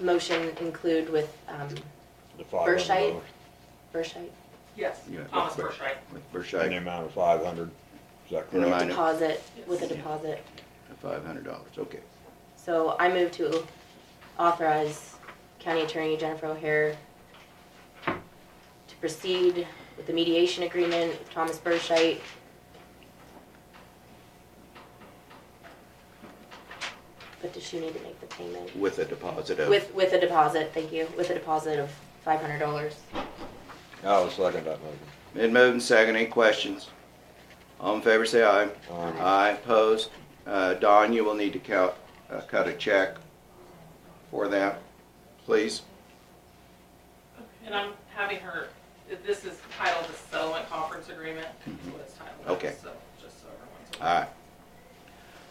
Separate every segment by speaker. Speaker 1: motion include with, um,
Speaker 2: The five
Speaker 1: Burschite?
Speaker 2: hundred
Speaker 1: Burschite?
Speaker 3: Yes,
Speaker 4: Yeah, that's
Speaker 3: Thomas
Speaker 4: fair.
Speaker 3: Burschright.
Speaker 4: with
Speaker 2: In the
Speaker 4: Burschite,
Speaker 2: amount of five hundred, is that
Speaker 4: In
Speaker 2: correct?
Speaker 4: the amount- I know.
Speaker 1: Deposit, with a
Speaker 3: Yes.
Speaker 1: deposit.
Speaker 4: five hundred dollars, okay.
Speaker 1: So I move to authorize County Attorney Jennifer O'Hare to proceed with the mediation agreement with Thomas Burschite. But does she need to make the payment?
Speaker 4: With a deposit of,
Speaker 1: With, with a deposit, thank you, with a deposit of five hundred dollars.
Speaker 2: I'll second that motion.
Speaker 4: been moved and seconded, any questions? All in favor, say aye.
Speaker 2: Aye.
Speaker 4: opposed. Uh, Don, you will need to count, uh, cut a check for that, please.
Speaker 3: And I'm having her, this is titled the settlement conference agreement, is what it's titled.
Speaker 4: Okay.
Speaker 3: So, just so everyone's aware.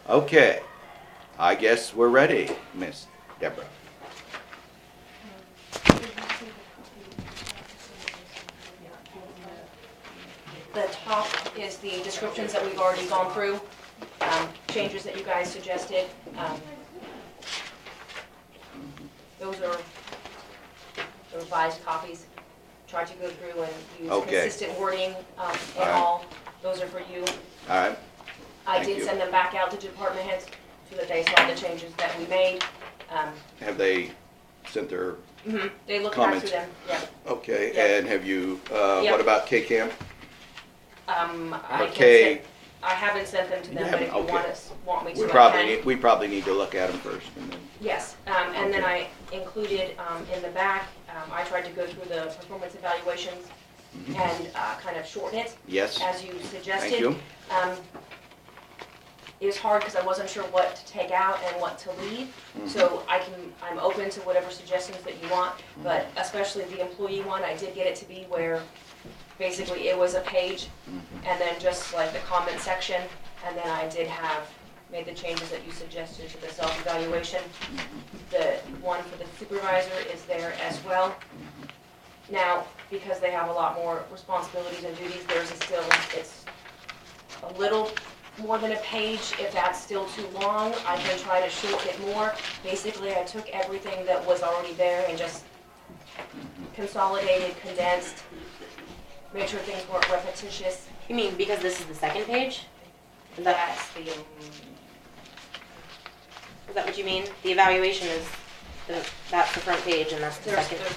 Speaker 4: Alright. Okay, I guess we're ready, Miss Deborah.
Speaker 5: The top is the descriptions that we've already gone through, um, changes that you guys suggested. um, Those are the revised copies. Tried to go through and use
Speaker 4: Okay.
Speaker 5: consistent wording um, in
Speaker 4: Alright.
Speaker 5: all. Those are for you.
Speaker 4: Alright,
Speaker 5: I
Speaker 4: Thank
Speaker 5: did
Speaker 4: you.
Speaker 5: send them back out to department heads so that they saw the changes that we made. Um,
Speaker 4: have they sent their,
Speaker 5: mhm, They looked back
Speaker 4: Comments.
Speaker 5: through them, yeah.
Speaker 4: okay,
Speaker 5: Yeah.
Speaker 4: and have you, uh,
Speaker 5: Yeah.
Speaker 4: what about K-Camp?
Speaker 5: Um, I can
Speaker 4: Okay.
Speaker 5: send, I haven't sent them to
Speaker 4: You
Speaker 5: them, but
Speaker 4: haven't,
Speaker 5: if you
Speaker 4: okay.
Speaker 5: want us, want me to, I
Speaker 4: We
Speaker 5: can.
Speaker 4: probably, need we probably need to look at them first and then.
Speaker 5: Yes, um, and then I included, um, in the back, um, I tried to go through the performance evaluations and, uh, kind of shorten it
Speaker 4: mm-hmm. Yes,
Speaker 5: as you suggested.
Speaker 4: thank you.
Speaker 5: Um, it was hard because I wasn't sure what to take out and what to leave, so I can, I'm open to whatever suggestions that you want, but especially the employee one, I did get it to be where basically it was a page and then just like the comment section, and then I did have, made the changes that you suggested to the self-evaluation. The one for the supervisor is there as well. Now, because they have a lot more responsibilities and duties, theirs is still, it's a little more than a page, if that's still too long, I can try to shorten it more. Basically, I took everything that was already there and just consolidated, condensed, made sure things weren't repetitious.
Speaker 1: You mean because this is the second page? Is that,
Speaker 5: That's the, um,
Speaker 1: is that what you mean? The evaluation is, the- that's the front page and that's the
Speaker 5: there's,
Speaker 1: second.
Speaker 5: there's,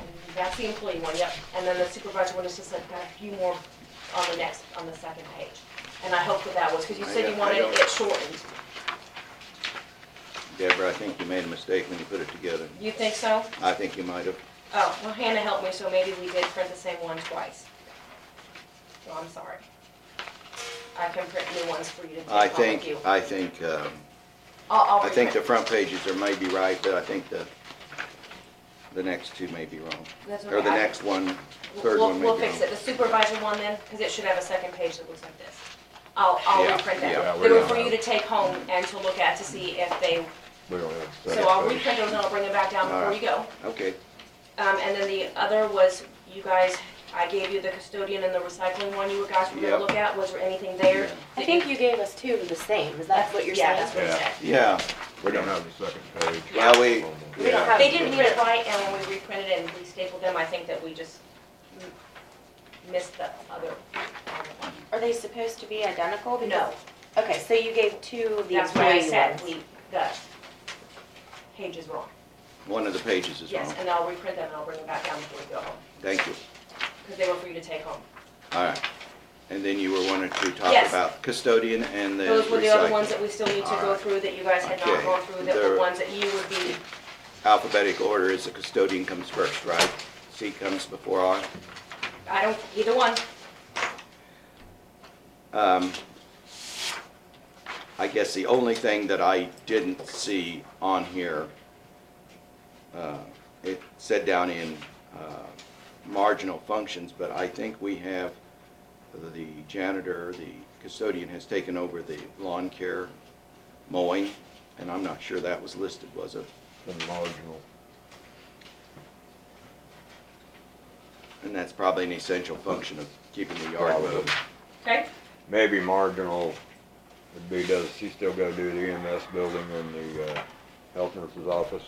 Speaker 5: and that's the employee one, yep. And then the supervisor one is just like, got a few more on the next, on the second page. And I hope that that was, because you
Speaker 4: I
Speaker 5: said
Speaker 4: don't-
Speaker 5: you
Speaker 4: I
Speaker 5: wanted
Speaker 4: don't-
Speaker 5: it shortened.
Speaker 4: Deborah, I think you made a mistake when you put it together.
Speaker 5: You think so?
Speaker 4: I think you might have.
Speaker 5: Oh, well Hannah helped me, so maybe we did print the same one twice. So I'm sorry. I can print new ones for you to take
Speaker 4: I
Speaker 5: home with
Speaker 4: think,
Speaker 5: you.
Speaker 4: I think, um,
Speaker 5: I'll, I'll
Speaker 4: I think the
Speaker 5: reprint.
Speaker 4: front pages are maybe right, but I think the, the next two may be wrong.
Speaker 5: That's
Speaker 4: Or
Speaker 5: okay.
Speaker 4: the next one,
Speaker 5: We'll-
Speaker 4: third
Speaker 5: we'll-
Speaker 4: one may be
Speaker 5: We'll
Speaker 4: wrong.
Speaker 5: fix it. The supervisor one then, because it should have a second page that looks like this. I'll, I'll
Speaker 4: Yeah,
Speaker 5: reprint
Speaker 2: yeah,
Speaker 5: that.
Speaker 2: we
Speaker 5: They were
Speaker 2: don't
Speaker 5: for you
Speaker 2: have-
Speaker 5: to take home and to look at to see if they,
Speaker 2: We don't have a
Speaker 5: so I'll
Speaker 2: second page.
Speaker 5: reprint those and I'll bring them back down
Speaker 4: All
Speaker 5: before
Speaker 4: right.
Speaker 5: you go.
Speaker 4: Okay,
Speaker 5: Um, and then the other was, you guys, I gave you the custodian and the recycling one you guys were
Speaker 4: Yeah.
Speaker 5: gonna look at. Was there anything there?
Speaker 4: Yeah.
Speaker 1: I think you gave us two of the same, is that what you're
Speaker 5: Yeah,
Speaker 1: saying?
Speaker 5: that's what it
Speaker 2: Yeah.
Speaker 5: said.
Speaker 4: yeah,
Speaker 2: We don't have the second page.
Speaker 4: Well, we-
Speaker 2: On the-
Speaker 1: We don't have.
Speaker 5: They didn't read it right, and when we reprinted it and we stapled them, I think that we just m- missed the other one.
Speaker 1: Are they supposed to be identical?
Speaker 5: No,
Speaker 1: Because- Okay, so you gave two of the
Speaker 5: that's why I
Speaker 1: employee
Speaker 5: said
Speaker 1: ones.
Speaker 5: we, the page is wrong.
Speaker 4: one of the pages is
Speaker 5: Yes,
Speaker 4: wrong.
Speaker 5: and I'll reprint them and I'll bring them back down before we go home,
Speaker 4: Thank you.
Speaker 5: because they were for you to take home.
Speaker 4: All right. And then you were wanting to talk
Speaker 5: Yes.
Speaker 4: about custodian and the
Speaker 5: Those were the other ones
Speaker 4: recycling.
Speaker 5: that we still need to
Speaker 4: All
Speaker 5: go
Speaker 4: right.
Speaker 5: through that you guys had
Speaker 4: Okay.
Speaker 5: not gone through, that
Speaker 4: There-
Speaker 5: were ones that you would be,
Speaker 4: Alphabetical order is the custodian comes first, right? C comes before R.
Speaker 5: I don't, either one.
Speaker 4: Um, I guess the only thing that I didn't see on here, uh, it said down in uh, marginal functions, but I think we have, the janitor, the custodian has taken over the lawn care mowing, and I'm not sure that was listed, was it?
Speaker 2: The marginal.
Speaker 4: And that's probably an essential function of keeping the yard
Speaker 2: Probably.
Speaker 4: moving.
Speaker 5: Okay,
Speaker 2: Maybe marginal E would be, does she still go do the EMS building and the, uh, health nurse's office?